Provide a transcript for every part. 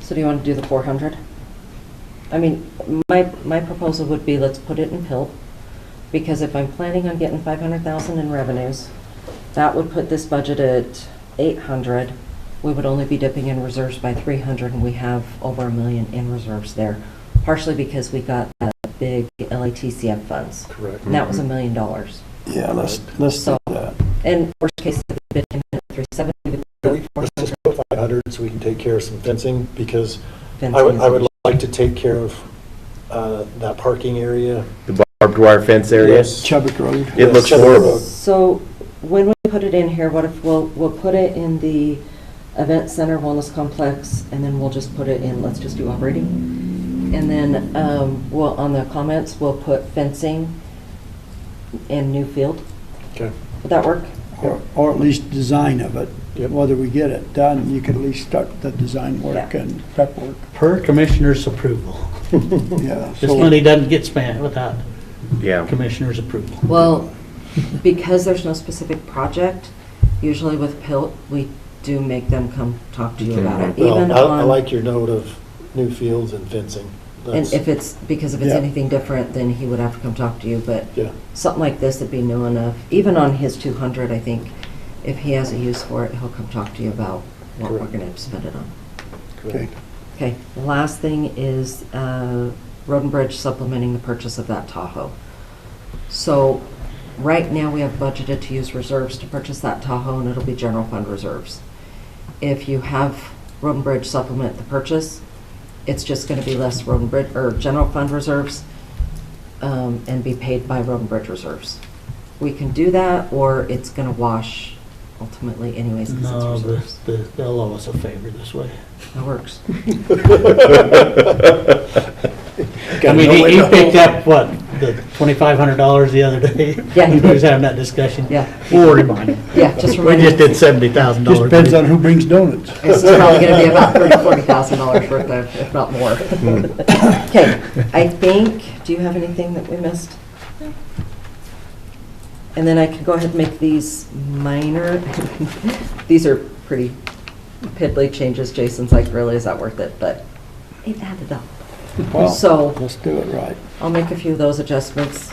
So do you want to do the 400? I mean, my, my proposal would be let's put it in PILT, because if I'm planning on getting 500,000 in revenues, that would put this budget at 800. We would only be dipping in reserves by 300, and we have over a million in reserves there, partially because we got the big LATCF funds. Correct. And that was a million dollars. Yeah, let's, let's do So- that. And worst case, the bid came in at 370 with We- Let's just put 500 so we can take care of some fencing, because fencing. I would, I would like to take care of uh, that parking area. The barbed wire fence area? Yes. Chubbuck Road. It looks horrible. So when we put it in here, what if, we'll, we'll put it in the event center wellness complex, and then we'll just put it in, let's just do operating. And then, um, we'll, on the comments, we'll put fencing and new field. Okay. Would that work? Or, or at least design of it, Yep. whether we get it done, you could at least start the design work Yeah. and prep work, Per commissioner's approval. yeah. This so- money doesn't get spent without Yeah. commissioner's approval. Well, because there's no specific project, usually with PILT, we do make them come talk to you about it. Well, even I- I on- like your note of new fields and fencing. And That's- if it's, because if it's Yeah. anything different, then he would have to come talk to you, but Yeah. something like this would be new enough. Even on his 200, I think, if he has a use for it, he'll come talk to you about what we're Correct. going to spend it on. Okay. correct. Okay, the last thing is uh, Roden Bridge supplementing the purchase of that Tahoe. So, right now, we have budgeted to use reserves to purchase that Tahoe, and it'll be general fund reserves. If you have Roden Bridge supplement the purchase, it's just going to be less Roden Bridge, or general fund reserves, um, and be paid by Roden Bridge reserves. We can do that, or it's going to wash ultimately anyways, No, because it's the- reserves. the- they'll owe us a favor this way. That works. I mean, he- he picked up, what, the $2,500 the other day? Yeah, he He did. was having that discussion. Yeah, Or remind him. yeah, just We remind just me. did $70,000. Just depends on who brings donuts. This is probably gonna be about thirty, forty thousand dollars worth of, if not more. Okay, I think, do you have anything that we missed? And then I can go ahead and make these minor, these are pretty piddly changes. Jason's like, really, is that worth it? But it added up. Well, So- Let's do it right. I'll make a few of those adjustments.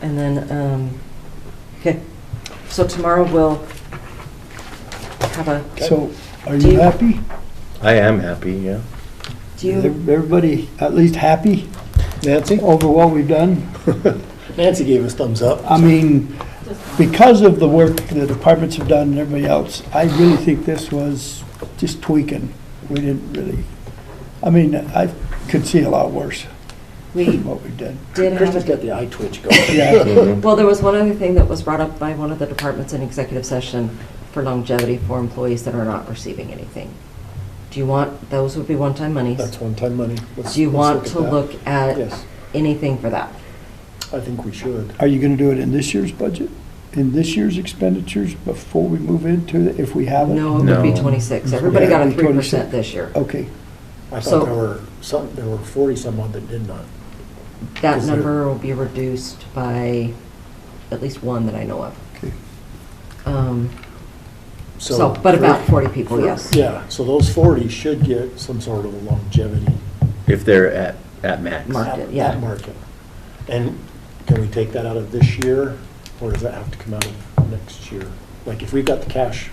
And then, um, okay, so tomorrow we'll have a, So, are Do you- you happy? I am happy, yeah. do Is you, everybody at least happy Nancy? over what we've done? Nancy gave us thumbs up. I mean, because of the work the departments have done and everybody else, I really think this was just tweaking. We didn't really, I mean, I could see a lot worse we than what we did. did have a Kristen's got the eye twitch going. Yeah, Well, there was one other thing that was brought up by one of the departments in executive session for longevity for employees that are not receiving anything. Do you want, those would be one-time That's monies. one-time money. Let's- Do you let's want to at that. look at Yes, anything for that? I think we should. are you gonna do it in this year's budget? In this year's expenditures before we move into it, if we have it? No, it would be No. 26. Everybody got a Yeah, 3% 26. this year. Oh, Okay, I So- thought there were some, there were 40-some odd that did not. That Is there- number will be reduced by at least one that I know of. okay. Um, So, but for- about 40 people, yes. Yeah, so those 40 should get some sort of a longevity If they're at, at max. Mark. Market, at- yeah. at market. And can we take that out of this year, or does that have to come out of next year? Like, if we've got the cash.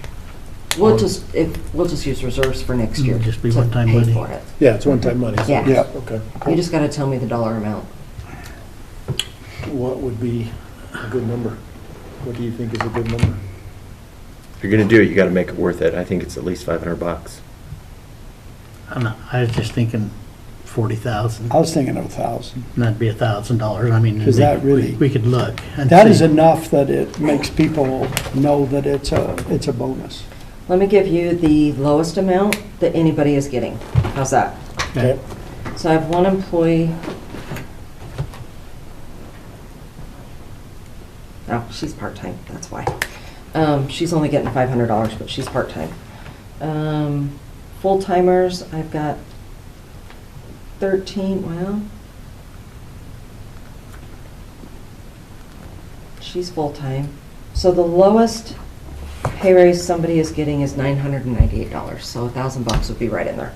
We'll just, if, we'll just use reserves for next year. Mm, just be to one-time pay money. for it. Yeah, it's one-time money. so- Yeah. Yeah. Okay. You just got to tell me the dollar amount. What would be a good number? What do you think is a good number? If you're gonna do it, you gotta make it worth it. I think it's at least five hundred bucks. I'm not- I was just thinking 40,000, I was thinking of a thousand. and that'd be $1,000. I mean. Does that really- We could look. and That is see. enough that it makes people know that it's a, it's a bonus. Let me give you the lowest amount that anybody is getting. How's that? Okay. So I have one employee. Oh, she's part-time, that's why. Um, she's only getting five hundred dollars, but she's part-time. Um, full-timers, I've got thirteen, well. She's full-time. So the lowest pay raise somebody is getting is nine hundred and ninety-eight dollars, so a thousand bucks would be right in there.